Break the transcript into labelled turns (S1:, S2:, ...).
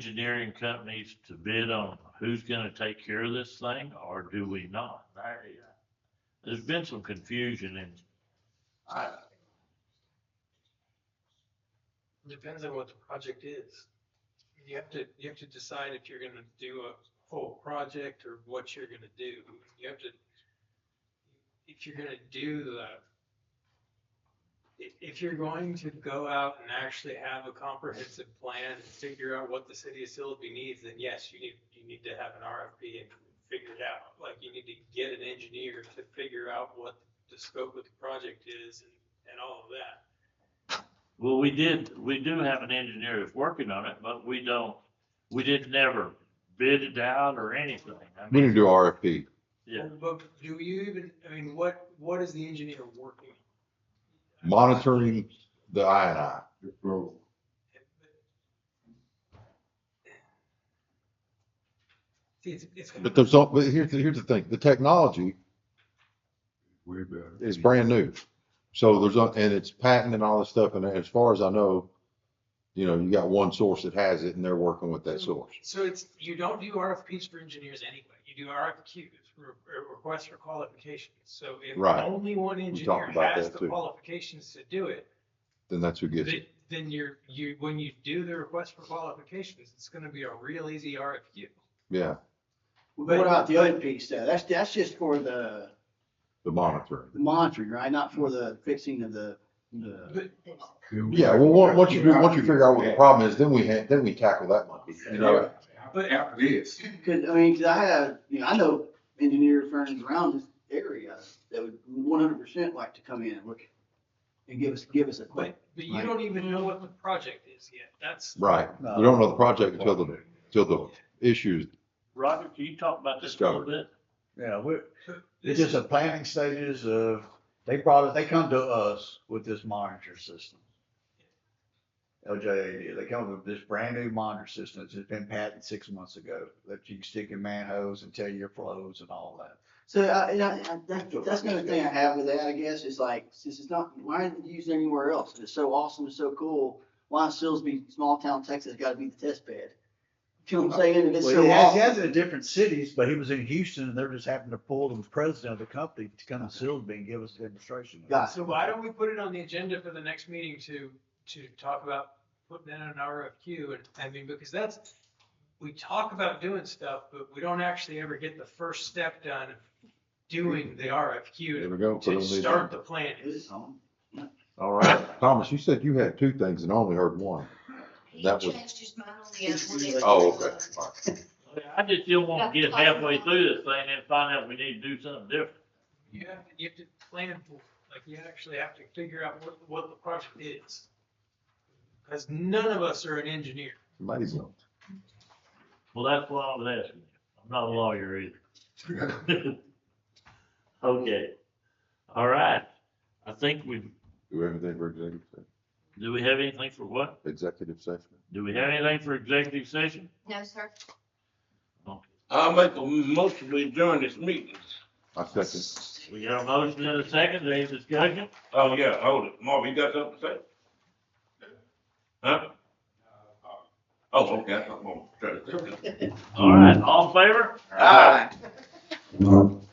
S1: engineering companies to bid on who's gonna take care of this thing, or do we not? I- There's been some confusion and I,
S2: Depends on what the project is. You have to, you have to decide if you're gonna do a whole project or what you're gonna do. You have to, if you're gonna do the, i- if you're going to go out and actually have a comprehensive plan and figure out what the city of Silsby needs, then yes, you need, you need to have an RFP and figure it out. Like, you need to get an engineer to figure out what the scope of the project is and, and all of that.
S1: well, we did, we do have an engineer that's working on it, but we don't, we did never bid it out or anything. I
S3: We
S1: mean,
S3: need to do RFP.
S1: Yeah.
S2: But do you even, I mean, what, what is the engineer working? on?
S3: monitoring the I and I.
S2: See, it's, it's.
S3: But there's, al- but here's, the- here's the thing, the technology
S4: Way better.
S3: is brand new. So there's, a- and it's patent and all this stuff, and as far as I know, you know, you got one source that has it and they're working with that source.
S2: So it's, you don't do RFPs for engineers anyway. You do RFQs, re- re- requests for qualifications. So if
S3: Right.
S2: only one engineer
S3: talked about
S2: has
S3: that
S2: the
S3: too.
S2: qualifications to do it,
S3: Then that's who gets
S2: then,
S3: it.
S2: then you're, you, when you do the request for qualifications, it's gonna be a real easy RFQ.
S3: Yeah,
S5: What about the other piece though? That's, that's just for the
S3: the monitoring.
S5: the monitoring, right? Not for the fixing of the, the.
S2: But
S3: Yeah, well, once, once you, do- once you figure out what the problem is, then we, ha- then we tackle that monkey, you know?
S2: But-
S4: After this.
S5: Cause I mean, cause I have, you know, I know engineer firms around this area that would one hundred percent like to come in and look and give us, give us a quick.
S2: But, but you don't even know what the project is yet. That's,
S3: Right. We don't know the project until the, until the issues.
S1: Robert, can you talk about this a little bit?
S6: Yeah, we're, it's
S2: this
S6: just
S2: is,
S6: the planning stages of, they probably, they come to us with this monitor system. LJAD, they come with this brand new monitor system that's just been patented six months ago, that you can stick in manholes and tell your flows and all that.
S5: So I, I, I- that, that's another thing I have with that, I guess, is like, since it's not, why isn't it used anywhere else? If It's so awesome, it's so cool. Why is Silsbee, small town Texas, gotta be the test bed? You know what I'm saying? If it's
S6: Well,
S5: so
S6: he has,
S5: awesome.
S6: he has it in different cities, but he was in Houston and they're just happened to pull the president of the company to come to Silsbee and give us a demonstration. of it.
S5: Got
S2: so why don't we put it on the agenda for the next meeting to, to talk about putting in an RFQ? And, I mean, because that's, we talk about doing stuff, but we don't actually ever get the first step done of doing the
S3: There
S2: RFQ
S3: we go. Put
S2: to
S3: on the-
S2: start the planning.
S5: It's awesome.
S3: All right. Thomas, you said you had two things and I only heard one.
S7: He
S3: That was-
S7: changed his mind on the other one. It's-
S3: Oh, okay. All right.
S1: I just still want to get halfway through this thing and find out we need to do something different.
S2: You have, you have to plan for, it. like, you actually have to figure out what, what the project is. Cause none of us are an engineer.
S3: Somebody's going.
S1: Well, that's why I was asking you. I'm not a lawyer either. Okay. All right. I think we,
S3: Do everything for executive session.
S1: do we have anything for what?
S3: Executive session.
S1: Do we have anything for executive session?
S7: No, sir.
S8: I'll make a motion we adjourn this meeting.
S3: I second.
S1: We got a motion and a second. Any discussion?
S8: Oh, yeah, hold it. Marvin, you got something to say? Huh? Oh, okay, I'm gonna-
S1: All right, all in favor?
S5: All right.
S3: No.